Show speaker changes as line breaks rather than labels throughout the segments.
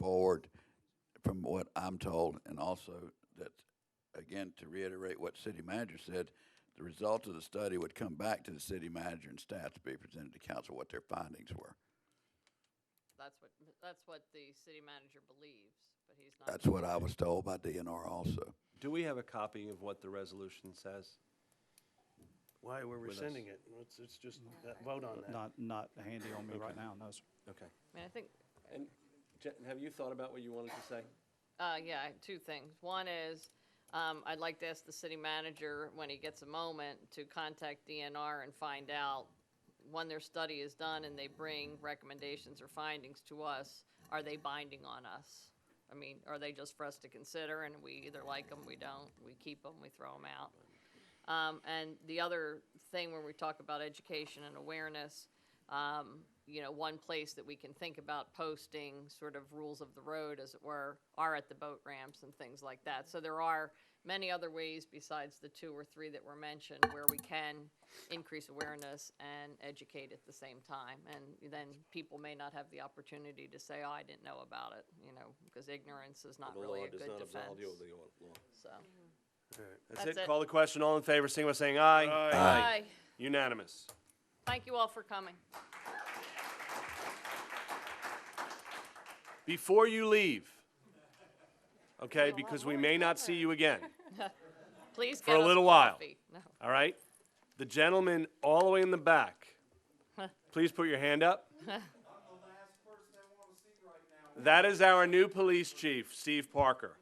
forward from what I'm told, and also that, again, to reiterate what city manager said, the result of the study would come back to the city manager and staff to be presented to council what their findings were.
That's what, that's what the city manager believes, but he's not.
That's what I was told by DNR also.
Do we have a copy of what the resolution says?
Why, we're
With us.
rescinding it. Let's, it's just, that- vote on that.
Not, not handy on me right now, no, sir.
Okay.
I mean, I think,
And Jen, have you thought about what you wanted to say?
uh, yeah, I- two things. One is, um, I'd like to ask the city manager, when he gets a moment, to contact DNR and find out when their study is done and they bring recommendations or findings to us, are they binding on us? I mean, are they just for us to consider and we either like them, we don't, we keep them, we throw them out? Um, and the other thing when we talk about education and awareness, um, you know, one place that we can think about posting sort of rules of the road, as it were, are at the boat ramps and things like that. So there are many other ways besides the two or three that were mentioned where we can increase awareness and educate at the same time. And then people may not have the opportunity to say, oh, I didn't know about it, you know, because ignorance is not
The
really
law
a
does
good
not absolve you of
defense.
the law.
So.
That's
That's
it.
it.
Call the question. All in favor, sing by saying aye.
Aye.
Unanimous.
Thank you all for coming.
Before you leave, okay, because we may not see you again,
Please
For
get
a
us
little while.
coffee. No.
all right? The gentleman all the way in the back, please put your hand up. That is our new police chief, Steve Parker.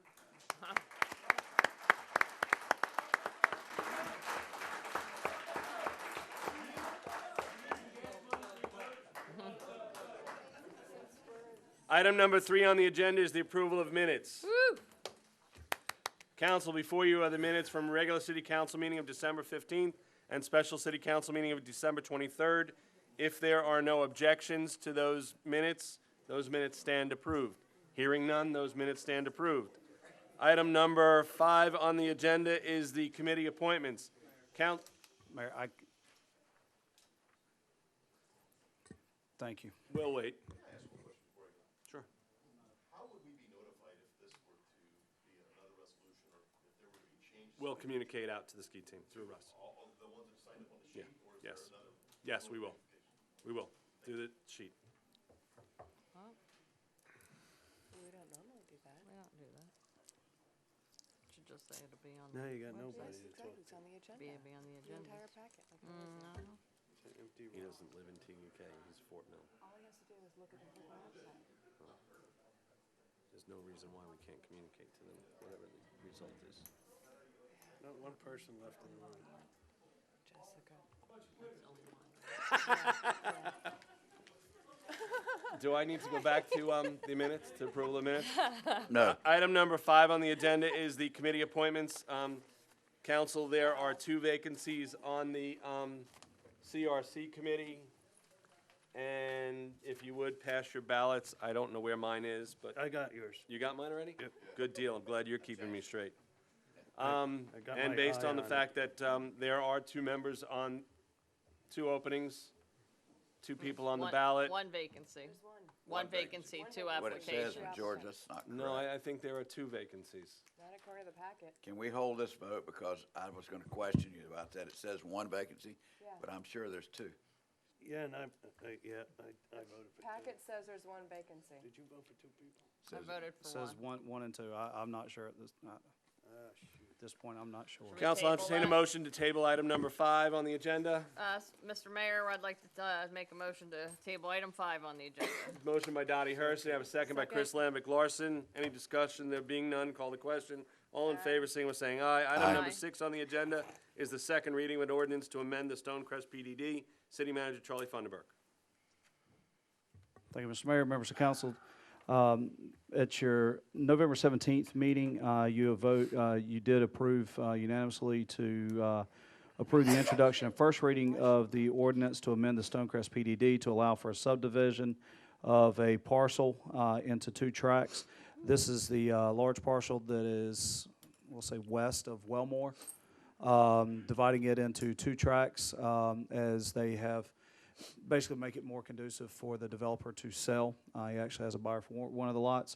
Item number three on the agenda is the approval of minutes.
Woo!
Council, before you are the minutes from regular city council meeting of December 15th and special city council meeting of December 23rd. If there are no objections to those minutes, those minutes stand approved. Hearing none, those minutes stand approved. Item number five on the agenda is the committee appointments. Count,
Mayor, I. Thank you.
we'll wait. Sure. How would we be notified if this were to be another resolution or if there were to be changes? We'll communicate out to the ski team through Russ. Yeah, yes. Yes, we will. We will, through the sheet.
We don't normally do that.
We don't do that. Should just say it'll be on,
Now
the-
you got nobody.
Yes,
It's
exactly, it's on the
be,
agenda,
be on the
the
agenda.
entire packet. like there is now.
an empty
He
room.
doesn't live in TUK, he's Fort Mill.
All he has to do is look at the freaking website.
There's no reason why we can't communicate to them, whatever the result is.
Not one person left in the room.
Jessica.
Do I need to go back to, um, the minutes, to approval of minutes?
No,
Item number five on the agenda is the committee appointments. Um, council, there are two vacancies on the, um, CRC committee. And if you would, pass your ballots. I don't know where mine is, but
I got yours.
You got mine already?
Yep.
Good deal, I'm glad you're keeping me straight. Um,
I got
and
my
based
eye
on the
on it.
fact that, um, there are two members on, two openings, two people on the
One-
ballot.
One vacancy.
There's one,
One
vacancy.
vacancy, two
what it says,
applications.
Application.
George, that's not correct.
No, I, I think there are two vacancies.
not according to the packet.
Can we hold this vote because I was gonna question you about that. It says one vacancy,
Yeah.
but I'm sure there's two.
Yeah, and I, I, yeah, I, I voted for two.
Packet says there's one vacancy.
Did you vote for two people?
I
Says-
voted for
Says
one.
one, one and two. I, I'm not sure at this, not,
Ah, shoot.
at this point, I'm not sure.
we-
Council, I'll
table
entertain a
that?
motion to table item number five on the agenda.
Uh, s- Mr. Mayor, I'd like to, uh, make a motion to table item five on the agenda.
Motion by Dottie Hurst, and I have a second by Chris Lambic Larson. Any discussion? There being none, call the question. All in favor, sing by saying aye. Item
Aye.
number
Aye.
six on the agenda is the second reading of an ordinance to amend the Stonecrest PDD. City Manager Charlie Funderburk.
Thank you, Mr. Mayor, members of council. Um, At your November 17th meeting, uh, you vote, uh, you did approve uh, unanimously to uh, approve the introduction and first reading of the ordinance to amend the Stonecrest PDD to allow for a subdivision of a parcel uh, into two tracts. This is the uh, large parcel that is, we'll say, west of Wellmore um, dividing it into two tracks um, as they have basically make it more conducive for the developer to sell. Uh, He actually has a buyer for one of the lots.